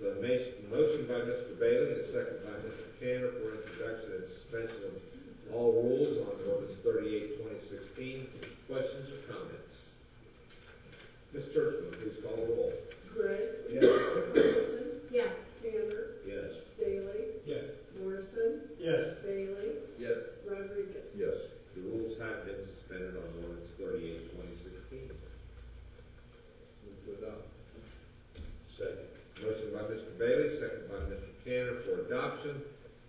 ma- motion by Mr. Bailey, and second by Mr. Tanner for introduction and suspension of all rules on ordinance 38-2016. Questions or comments? Ms. Churchman, please call the roll. Gray. Yes. Coniston. Yes. Tanner. Yes. Staley. Yes. Morrison. Yes. Bailey. Yes. Rodriguez. Yes. The rules have been suspended on ordinance 38-2016. Move to adopt. Second. Motion by Mr. Bailey, second by Mr. Tanner for adoption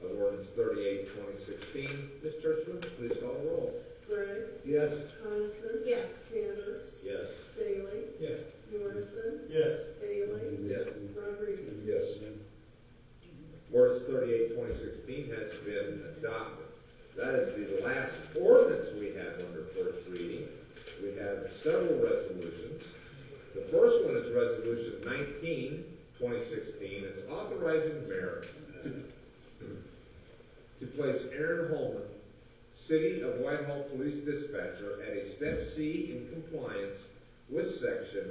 of ordinance 38-2016. Ms. Churchman, please call the roll. Gray. Yes. Coniston. Yes. Tanner. Yes. Staley. Yes. Morrison. Yes. Bailey. Yes. Rodriguez. Yes. Ordinance 38-2016 has been adopted. That is the last ordinance we have under first reading. We have several resolutions. The first one is Resolution 19-2016. It's authorizing mayor to place Aaron Holman, City of Whitehall Police Dispatcher, at a step C in compliance with section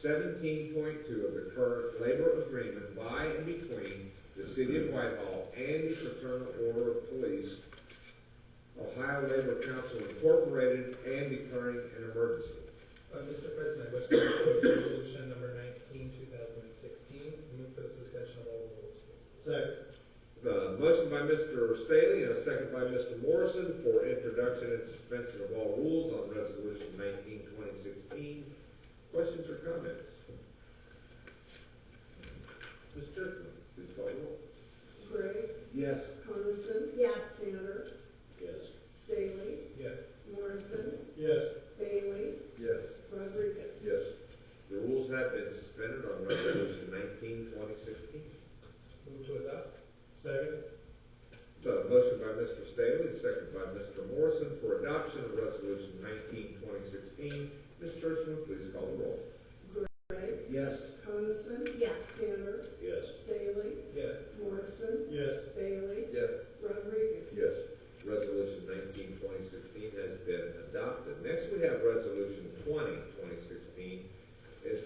seventeen point two of the current labor agreement by and between the City of Whitehall and the Fraternal Order of Police, Ohio Labor Council Incorporated, and declaring an emergency. Uh, Mr. President, I wish to propose resolution number 19, 2016, move for the suspension of all rules. Second. The motion by Mr. Staley and a second by Mr. Morrison for introduction and suspension of all rules on Resolution 19, 2016. Questions or comments? Ms. Churchman, please call the roll. Gray. Yes. Coniston. Yes. Tanner. Yes. Staley. Yes. Morrison. Yes. Bailey. Yes. Rodriguez. Yes. The rules have been suspended on Resolution 19, 2016. Move to adopt. Second. The motion by Mr. Staley, and second by Mr. Morrison for adoption of Resolution 19, 2016. Ms. Churchman, please call the roll. Gray. Yes. Coniston. Yes. Tanner. Yes. Staley. Yes. Morrison. Yes. Bailey. Yes. Rodriguez. Yes. Resolution 19, 2016 has been adopted. Next, we have Resolution 20, 2016. It's,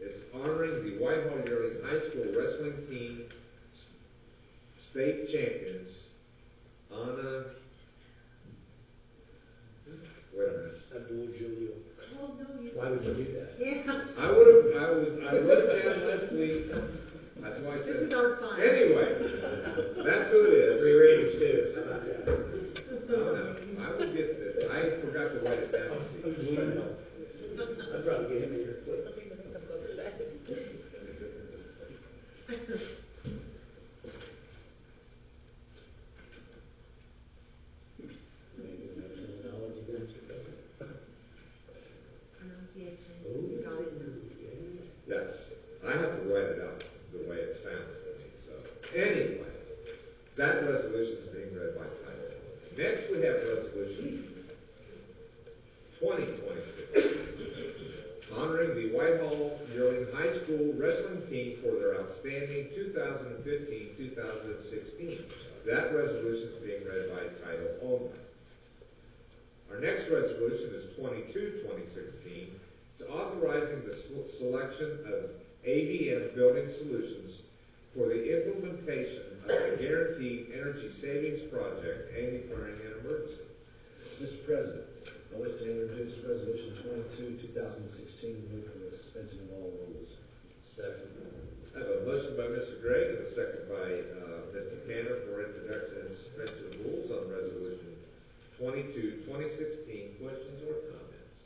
it's honoring the Whitehall Yearling High School Wrestling Team s- State Champions, Anna, wait a minute. Abdul Julio. Oh, no, you. Why would you do that? Yeah, I would have, I was, I wrote it down last week. That's why I this is said, our fun. anyway, that's who it is. Three ratings too. How about that? I don't know. I will get that. I forgot to write it down. I'm just trying to help. I'd probably get him in here quick. Oh. Pronunciation, got it now. Yes, I have to write it out the way it sounds to me, so. Anyway, that resolution is being read by title. only. Next, we have resolution twenty twenty-six, honoring the Whitehall Yearling High School Wrestling Team for their outstanding 2015-2016. That resolution is being read by title only. Our next resolution is 22-2016. It's authorizing the sel- selection of ABM Building Solutions for the implementation of the Guaranteed Energy Savings Project and declaring an emergency. Mr. President, I wish to introduce Resolution 22, 2016, move for the suspension of all rules. I have a motion by Mr. Gregg and a second by uh, Mr. Tanner for introduction and suspension of rules on Resolution 22, 2016. Questions or comments?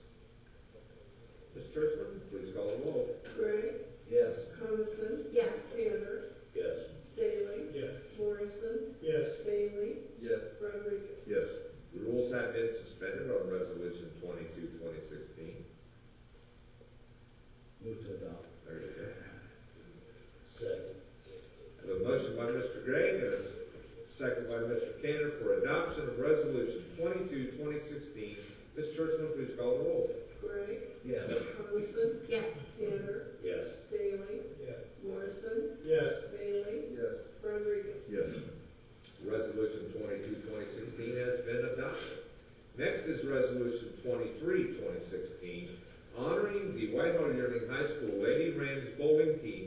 Ms. Churchman, please call the roll. Gray. Yes. Coniston. Yes. Tanner. Yes. Staley. Yes. Morrison. Yes. Bailey. Yes. Rodriguez. Yes. The rules have been suspended on Resolution 22, 2016. Move to adopt. There you go. Second. I have a motion by Mr. Gregg and a second by Mr. Tanner for adoption of Resolution 22, 2016. Ms. Churchman, please call the roll. Gray. Yes. Coniston. Yes. Tanner. Yes. Staley. Yes. Morrison. Yes. Bailey. Yes. Rodriguez. Yes. Resolution 22, 2016 has been adopted. Next is Resolution 23, 2016, honoring the Whitehall Yearling High School Lady Rams bowling team's